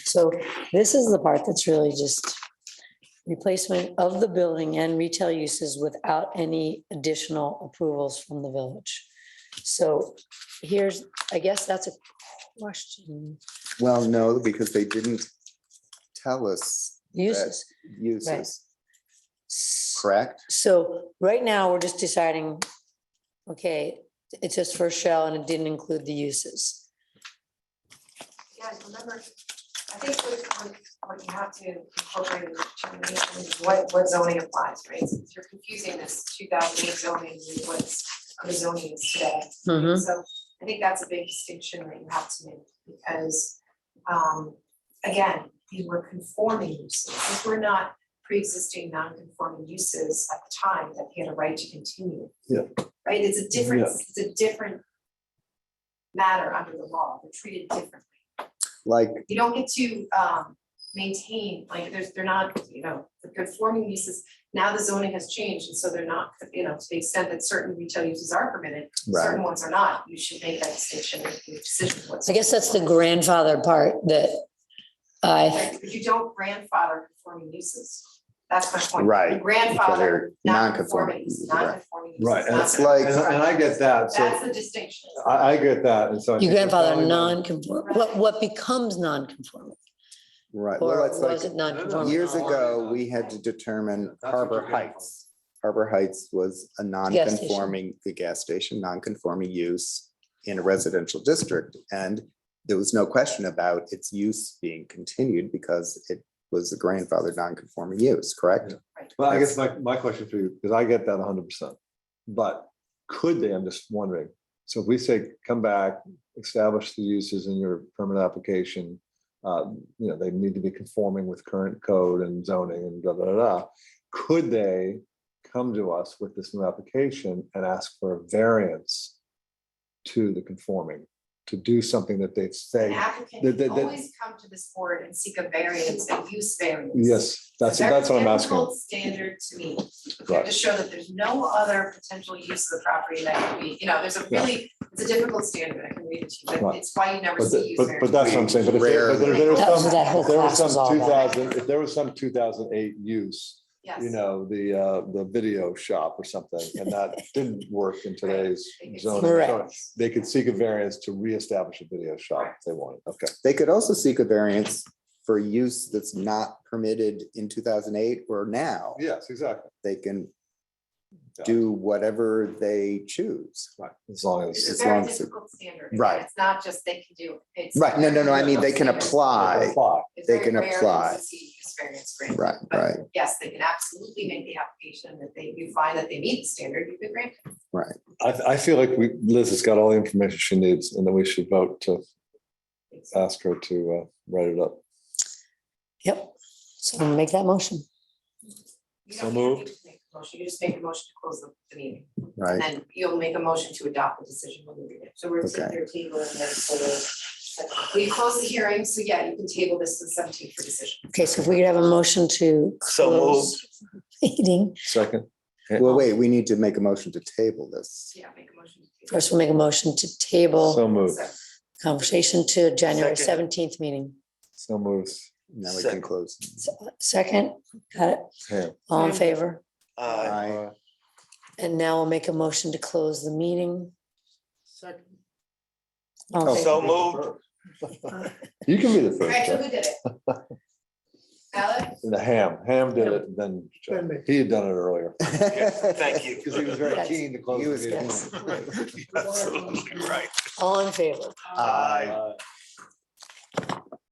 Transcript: So this is the part that's really just replacement of the building and retail uses without any additional approvals from the village. So here's, I guess that's a question, Well, no, because they didn't tell us uses. uses, correct? So right now, we're just deciding, okay, it's just for shell and it didn't include the uses. Guys, remember, I think what, what- what you have to incorporate in the determination is what, what zoning applies, right? Since You're confusing this two thousand eight zoning with what's, the zoning is today. Mhm. So I think that's a big distinction that you have to make, because, um, again, these were conforming uses. These were not pre-existing non-conforming uses at the time that they had a right to continue. Yeah. Right, it's a different, it's a different matter under the law, they're treated differently Like, you don't get to um maintain, like, there's, they're not, you know, the conforming uses. Now the zoning has changed, and so they're not, you know, to the extent that certain retail uses are permitted, certain ones are not, you should make that distinction in your decision. what's- I guess that's the grandfather part that I, Right, But you don't grandfather conforming uses, that's my point. Right, You because they're Grandfather non-conforming, non-conforming, uses, right. non-conforming uses. Right, and not- it's like- And I and I get that, so That's the distinction. I, I get that, and so. I your think we're grandfather following that. non-conform, what, what becomes non-conforming? right, well, Or it's was like, it non-conforming? years No, no, ago, no. we had to determine That's what Harbor you're getting Heights. Harbor Heights was a station. non-conforming, the gas station, non-conforming use in a residential district. And there was no question about its use being continued because it was a grandfathered non-conforming use, correct? Well, I guess my, my question for you, because I get that hundred percent, but could they, I'm just wondering, so if we say, come back, establish the uses in your permit application, uh, you know, they need to be conforming with current code and zoning and da, da, da, da. Could they come to us with this new application and ask for a variance to the conforming, to do something that they An say, applicant that- can that- that- always come to this board and seek a variance, a use variance. yes, that's, Very that's what I'm asking. difficult Standard to me, You have Right. to show that there's no other potential use of the property that could be, you know, there's a Yeah. really, it's a difficult standard, I can read it to you, but Right. it's why you never But, see the- use but, variance. but that's what I'm saying, but if there, but there- there was That was some, that whole if there was class was some all two about. thousand, if there was some two thousand eight use, Yes. you know, the, uh, the video shop or something, and that didn't work in today's It's- zoning. so Correct. They could seek a variance to reestablish a video shop if they wanted, okay. They could also seek a variance for use that's not permitted in two thousand eight or now. Yes, exactly, They can Yeah. do whatever they choose. right, as long It's as. as a very long as it- difficult standard. and Right. It's not just they can do it. It's Right, no, no, no, I very mean, they can difficult standard. apply, Apply. It's they very can rare that apply. you see Use variance granted. right, But right, Yes, they can absolutely make the application that they, you find that they meet the standard, you can grant. it. I, I feel like we, Liz has got all the information she needs, and then we should vote to It's- ask her to, uh, write it up. Yep, so make that motion. you So don't even moved. need to make a Motion, you just make a motion to close the the meeting. And right. then you'll make a motion to adopt the decision when we read it. So we're to Okay. your table and then for the. We close the hearing, so yeah, you can table this to seventeen for decision. Okay, so if we could have a motion to close meeting, Second, Well, wait, we need to make a motion to table this. Yeah, make a motion. to table. first we'll make a motion to table so moved, So, conversation to January Second. seventeenth meeting. so moves. Now we can Second. close. So, Second, got it, Yeah. all in Okay. favor? Aye. Aye. And now we'll make a motion to close the meeting. All in Oh, favor? So moved. You can be the All right, first, so Jeff. who did it? Alex? The ham, ham did it, and then Jeff. he had done it earlier. Thank you. Because he was very Yes. keen to close. He the was meeting. Yes. Absolutely right. All in favor? Aye.